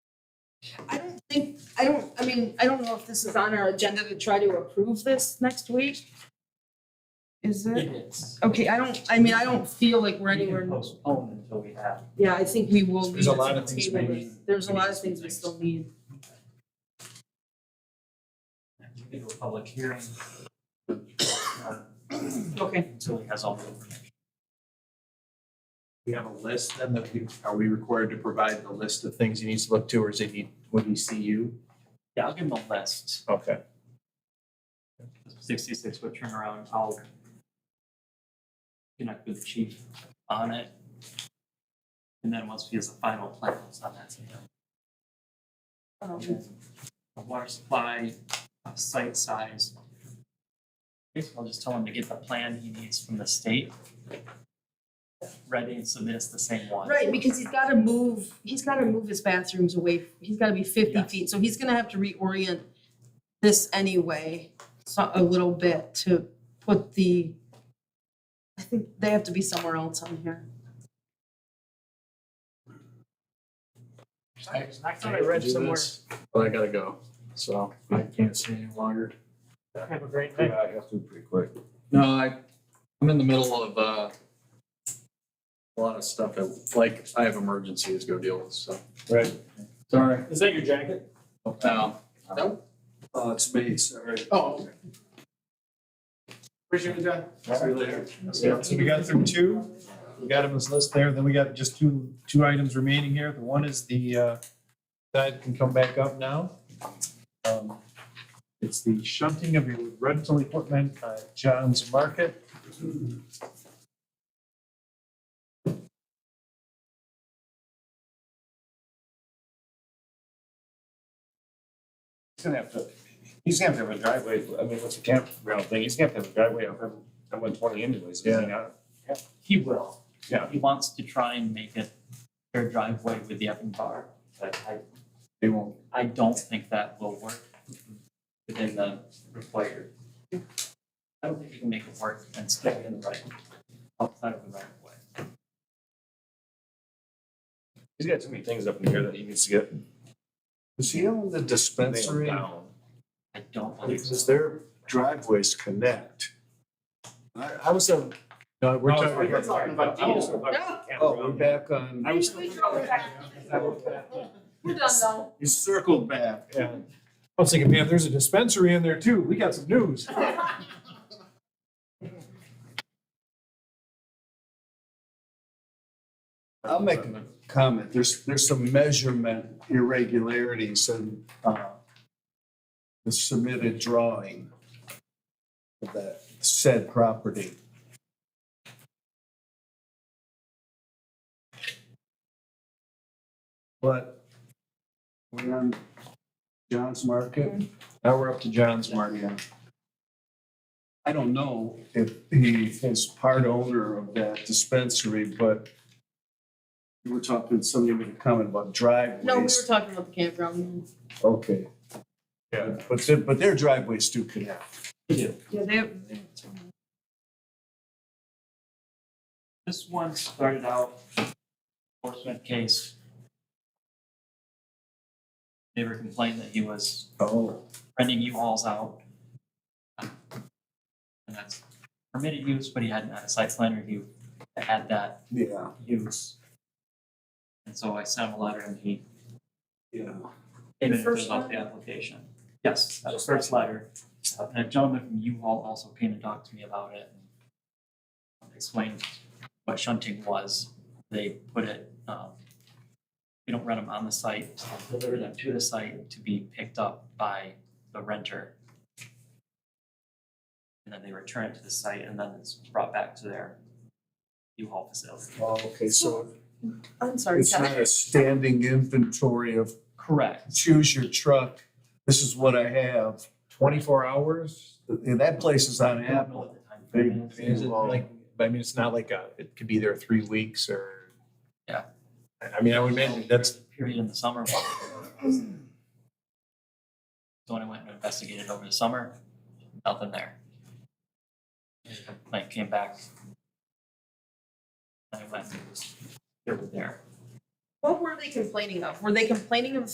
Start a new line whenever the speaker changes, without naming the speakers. I don't, I mean, I don't know if this is on our agenda to try to approve this next week. Is it?
is.
Okay, I don't, I mean, I don't feel like we're
We
anywhere,
can postpone until we have.
yeah, I think we will need
There's a
to
lot of things
table
we
this.
need-
There's a
we
lot
need
of
to
things we
fix.
still need.
We can do a public hearing.
Okay.
Until he has all the information.
We have a list then that we, are we required to provide the list of things he needs to look to or is it need, would he see you?
Yeah, I'll give him a list,
Okay.
sixty-six foot turnaround, I'll connect with the chief on it. And then once he has the final plans on that,
Um,
Okay. A water supply, a site size. Basically, I'll just tell him to get the plan he needs from the state. Ready and submit us the same one.
Right, because he's gotta move, he's gotta move his bathrooms away, he's gotta be fifty
Yeah.
feet, so he's gonna have to reorient this anyway, so a little bit to put the, I think they have to be somewhere else on here.
I
thought I read somewhere.
But I gotta go, so I can't stay any longer.
Have a great day.
Yeah, I have to pretty quick.
No, I, I'm in the middle of, uh, a lot of stuff that, like, I have emergencies to go deal with, so.
Right.
Sorry.
Is that your jacket?
Um, Uh,
Oh, it's me, sorry.
Oh, okay. Appreciate it, John.
See you later.
So so we got through two, we got him his list there, then we got just two, two items remaining here. The one is the, uh, that can come back up now. Um, It's the shunting of your rental equipment at John's Market.
He's gonna have to, he's gonna have to have a driveway, I mean, what's a campground thing, he's gonna have to have a driveway up him, I went twenty anyways, is he
Yeah.
not?
He will.
Yeah.
He wants to try and make it their driveway with the effing bar, but I,
they won't,
I don't think that will work within the required. I don't think you can make it work and still be in the right, outside of the right of way.
He's got too many things up in here that he needs to get.
Is he on the
nailed
dispensary?
down.
I don't believe so.
Because their driveways connect. I, I was on. No, we're talking.
Oh, We're talking about
I was-
diesel.
Oh, we're back on.
I was-
We're done now.
You circled back. I was thinking, man, there's a dispensary in there too. We got some news. I'll make a comment. There's, there's some measurement irregularities in uh, the submitted drawing of that said property. But we're on John's Market.
Mm-hmm.
Now we're up to John's Market. I don't know if he is part owner of that dispensary, but you were talking, somebody made a comment about driveways.
No, we were talking about the campground.
Okay.
Yeah.
But, their- but their driveways do connect.
Yeah, they,
This one started out enforcement case. Neighbor complained that he was
Oh.
renting U-Hauls out. And that's permitted use, but he hadn't had a site plan review that had that
Yeah,
use. And so I sent him a letter and he
yeah.
The
admitted
first
it off the application. Yes, that was first letter. Uh, And a gentleman from U-Haul also came and talked to me about it. and Explained what shunting was. They put it, um, we don't rent them on the site, so they deliver them to the site to be picked up by the renter. And then they return it to the site and then it's brought back to their U-Haul facility.
Oh, okay, so
I'm sorry,
it's not
Kevin.
a standing inventory of
Correct.
choose your truck, this is what I have.
twenty-four hours?
And that place is on
I don't know
Apple.
what the time
They-
frame is.
they- Is it like-
I mean, it's not like a, it could be there three weeks or.
Yeah.
I, I mean, I would imagine that's,
period in the summer. So when I went and investigated over the summer, nothing there. Like came back. I went, and it was here and there.
What were they complaining of? Were they complaining of